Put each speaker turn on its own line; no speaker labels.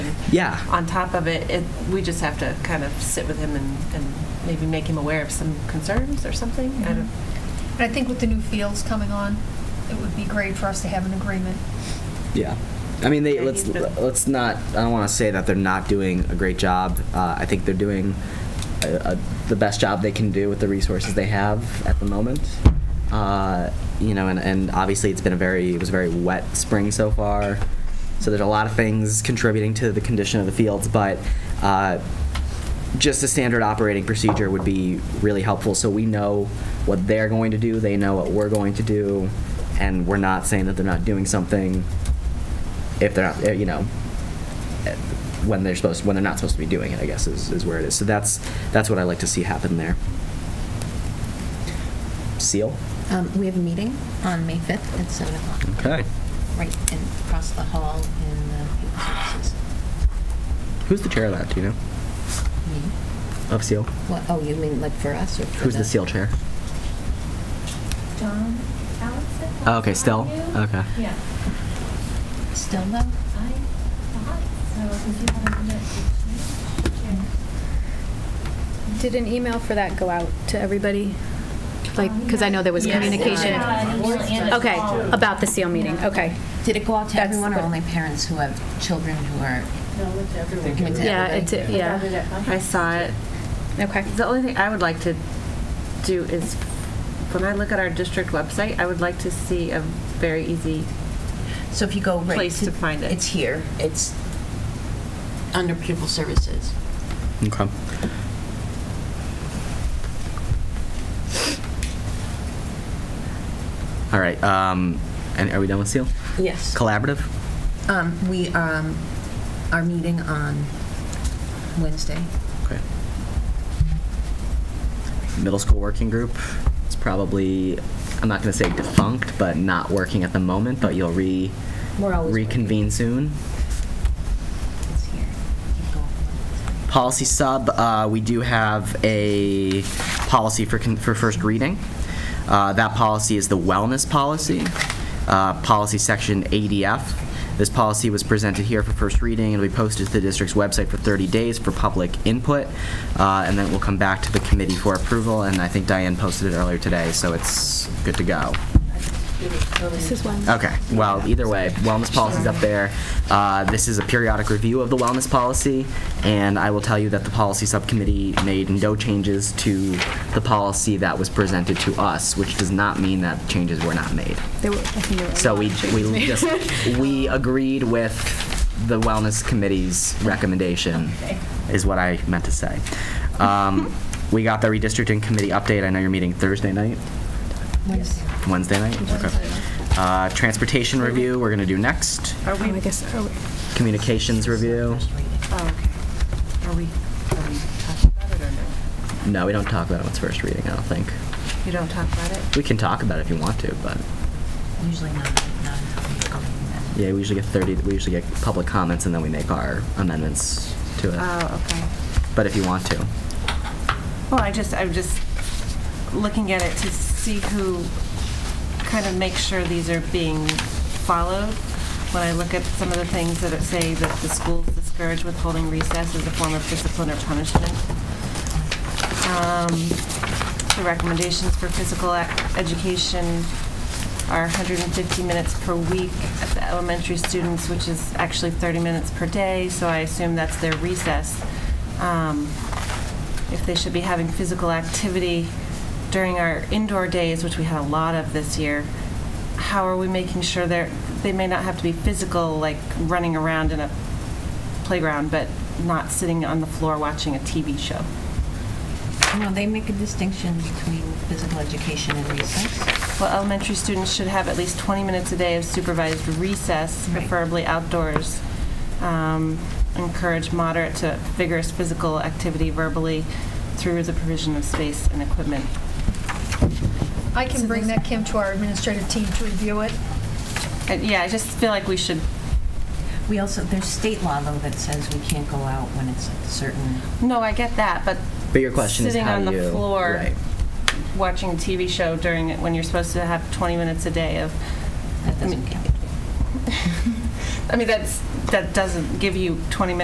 Yeah.
on top of it, it, we just have to kind of sit with him and, and maybe make him aware of some concerns or something. I don't,
And I think with the new fields coming on, it would be great for us to have an agreement.
Yeah. I mean, they
Yeah,
let's
he's been-
let's not. I don't want to say that they're not doing a great job. Uh, I think they're doing a, a, the best job they can do with the resources they have at the moment. Uh, you know, and, and obviously it's been a very it was a very wet spring so far. So there's a lot of things contributing to the condition of the fields, but uh, just a standard operating procedure would be really helpful so we know what they're going to do, they know what we're going to do, and we're not saying that they're not doing something if they're not, eh, you know, eh, when they're supposed, when they're not supposed to be doing it, I guess, is, is where it is. So that's, that's what I like to see happen there. Seal?
Um, We have a meeting on May 5th at 7 o'clock.
Okay.
Right in, across the hall in the Human Services.
Who's the chair of that, do you know?
Me?
Of Seal?
What, oh, you mean like for us or for
Who's the Seal chair?
John Allison?
Oh, okay, Stell?
Yeah.
Okay.
Yeah.
Still though?
I thought so, because you haven't met the
Did an email for that go out to everybody? Like,
Um,
because I know there was
yes.
communication.
Yeah, an email and a
Okay,
call.
about the SEAL meeting,
Yeah.
okay.
Did it go out to
That's
everyone or
the-
only parents who have children who are?
Thank you.
Yeah,
everybody?
it- yeah,
I saw it.
okay.
The only thing I would like to do is, when I look at our district website, I would like to see a very easy,
So if you go right.
Place to find it.
It's here. It's under pupil services.
Okay. All right, um, and are we done with Seal?
Yes.
Collaborative?
Um, We um, are meeting on Wednesday.
Okay. Middle school working group. It's probably, I'm not going to say defunct, but not working at the moment, but you'll re,
We're always working.
reconvene soon.
It's here. Keep going.
Policy sub, uh, we do have a policy for, con- for first reading. Uh, that policy is the wellness policy, uh, policy section ADF. This policy was presented here for first reading. It'll be posted to the district's website for 30 days for public input, uh, and then it will come back to the committee for approval. And I think Diane posted it earlier today, so it's good to go.
This is one.
Okay, well, either way, wellness policy's up there. Uh, This is a periodic review of the wellness policy, and I will tell you that the policy subcommittee made no changes to the policy that was presented to us, which does not mean that changes were not made.
There were- I think there were a
So
lot
we,
of changes
we
made.
just, we agreed with the wellness committee's recommendation, is what I meant to say. Um, We got the redistricting committee update. I know you're meeting Thursday night?
Wednesday.
Wednesday night? Okay. Uh, Transportation review, we're going to do next.
are we,
Oh,
oh,
I guess, are we-
Communications review.
First reading.
are we, are we talking about it or no?
No, we don't talk about it when it's first reading, I don't think.
You don't talk about it?
We can talk about it if you want to, but
Usually not, not until we go in.
yeah, we usually get 30, we usually get public comments and then we make our amendments to it.
Oh, okay.
But if you want to.
Well, I just, I'm just looking at it to see who, kind of make sure these are being followed. When I look at some of the things that it say that the schools discourage withholding recess as a form of discipline or punishment. Um, The recommendations for physical ac- education are 150 minutes per week at the elementary students, which is actually 30 minutes per day, so I assume that's their recess. Um, if they should be having physical activity during our indoor days, which we had a lot of this year, how are we making sure they're, they may not have to be physical, like running around in a playground, but not sitting on the floor watching a TV show?
No, they make a distinction between physical education and recess.
Well, elementary students should have at least 20 minutes a day of supervised recess,
Right.
preferably outdoors. Um, Encourage moderate to vigorous physical activity verbally through the provision of space and equipment.
I can bring that, Kim, to our administrative team to review it.
Uh, Yeah, I just feel like we should
We also, there's state law, though, that says we can't go out when it's a certain,
No, I get that, but.
But your question is how
Sitting on
you-
the floor,
right.
watching a TV show during, it when you're supposed to have 20 minutes a day of,
that doesn't count.
I mean, that's, that doesn't give you 20 minutes